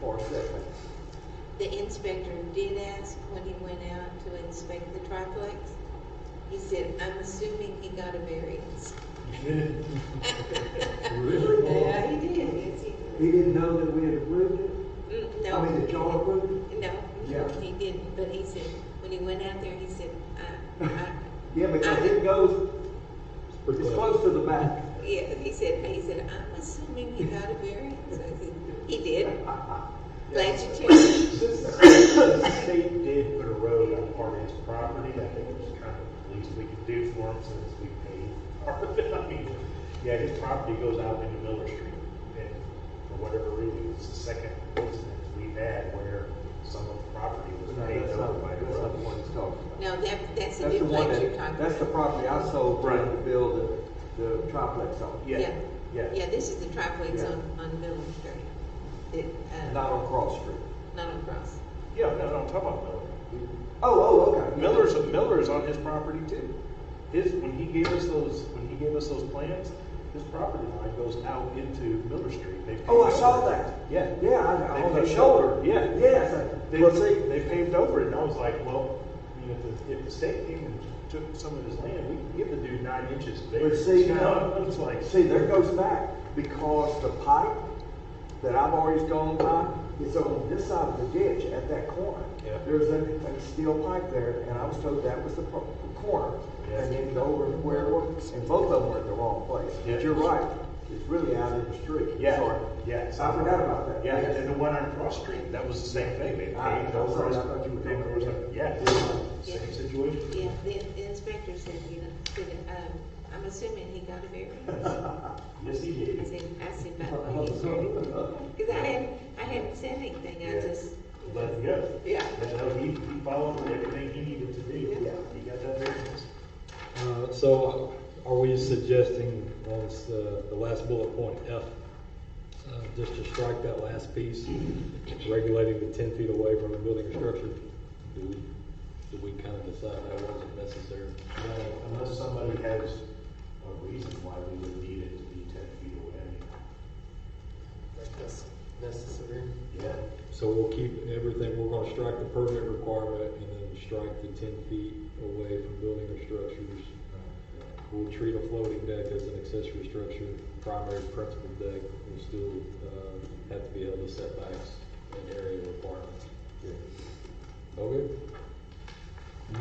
for setbacks. The inspector did ask when he went out to inspect the triplex. He said, I'm assuming he got a variance. Really? Yeah, he did, He yes, he did. didn't know that we had approved it? Mm, I mean, that y'all No, approved it? Yeah. no, he didn't, but he said, when he went out there, he said, I, I, Yeah, because it goes, it's close to the back. yeah, he said, he said, I'm assuming he got a variance. I said, He did. Glad you checked. The state did put a road on part of his property, I think it was kind of the least we could do for him since we paid part of it. I mean, Yeah, his property goes out into Miller Street, and for whatever reason, it's the second incident we've had where some of the property was No, paved that's over not, by the that's not the road. one he's talking about. No, that, that's the That's the one duplex you're that, talking about. that's the property I sold for him to Right. build the, the triplex on, Yeah, yeah. Yeah, this is the triplex Yeah. on, on Miller Street. It, uh, not on Cross Street. not across. Yeah, no, no, I'm talking about Miller. Oh, oh, okay. Miller's, Miller's on his property too. His, when he gave us those, when he gave us those plans, his property line goes out into Miller Street. They Oh, I paved saw over it. that. Yeah. Yeah, I, They on the paved shoulder. over it. Yeah. Yes, I- They, well, see, they paved over it, and I was like, well, you know, if the, if the state came and took some of his land, we could give the dude nine inches bigger. But see, You now- know, It's like, See, there goes back, because the pipe that I've always gone by is on this side of the ditch at that corner. Yeah. There's a, a steel pipe there, and I was told that was the pro- corner. Yeah. And then go over where it was, and both of them were in the wrong place. Yeah. But you're right, it's really out in the street. yeah, Sorry. yeah. I forgot about that. Yeah, Yes. Ah, and the one on Cross Street, that was the same thing. They I- paved I'm over. sorry, I his- thought you were talking paved over his- about- Yeah, same situation. Yeah, the, the inspector said, you know, said, um, I'm assuming he got a variance. Yes, he I did. said, I said, by the way, he's ready. Cause I hadn't, I hadn't said anything, I Yeah. just. Let him go. Yeah. And so he, he followed everything he needed to do. Yeah. He got that variance. Uh, So are we suggesting, well, it's uh, the last bullet point, F, uh, just to strike that last piece, regulating the ten feet away from a building or structure? Do we, do we kind of decide that wasn't necessary? No, Uh, Unless somebody has a reason why we would need it to be ten feet away. Like this necessary. Yeah. So we'll keep everything, we're gonna strike the permit requirement and then strike the ten feet away from building or structures. We'll treat a floating deck as an accessory structure, primary principal deck will still, uh, have to be able to setbacks and area requirements. Okay?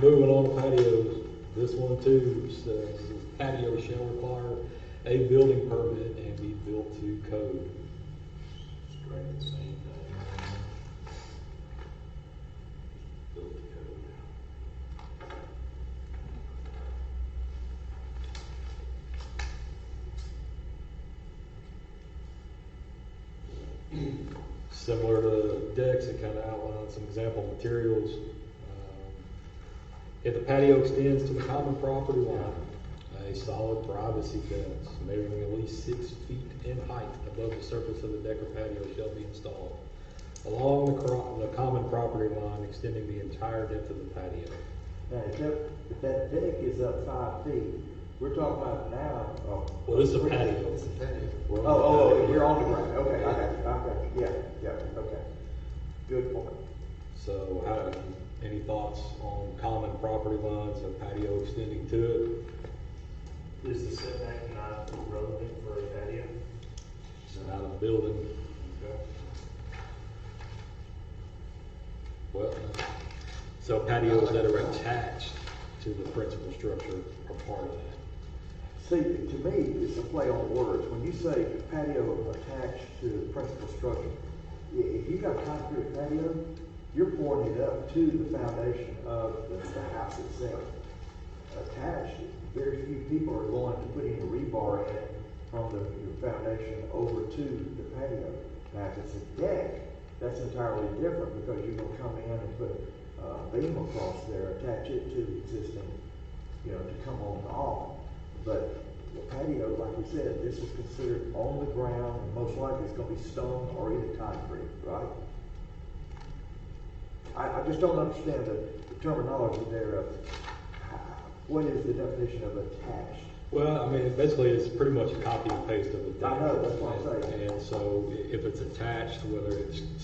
Moving on to patios, this one too says patio shall require a building permit and be built to code. Strike the same thing. Build the code. Similar to decks, it kind of outlines some example materials. Um, If the patio extends to the common property line, a solid privacy fence measuring at least six feet in height above the surface of the deck or patio shall be installed along the cro- the common property line extending the entire depth of the patio. Now, if that, if that deck is up five feet, we're talking about now, oh. Well, this is a patio. It's a patio. We're Oh, on the oh, oh, patio. you're on the ground, okay, I got you, I got you, yeah, yeah, okay. Good point. So, how, any thoughts on common property lines and patio extending to it? Is the setback not relevant for a patio? It's not a building. Okay. Well, so patios that are attached to the principal structure are part of that. See, to me, it's a play on words. When you say patio attached to the principal structure, i- if you got a concrete patio, you're pouring it up to the foundation of the, the house itself. Attached, very few people are going to put any rebar in it from the your foundation over to the patio. Now, if it's a deck, that's entirely different because you're gonna come in and put a beam across there, attach it to the existing you know, to come on and off. But the patio, like we said, this is considered on the ground, and most likely it's gonna be stone or either concrete, right? I, I just don't understand the the terminology there of, uh, what is the definition of attached? Well, I mean, basically, it's pretty much a copy and paste of the. I know, that's what I'm saying. And so i- if it's attached, whether it's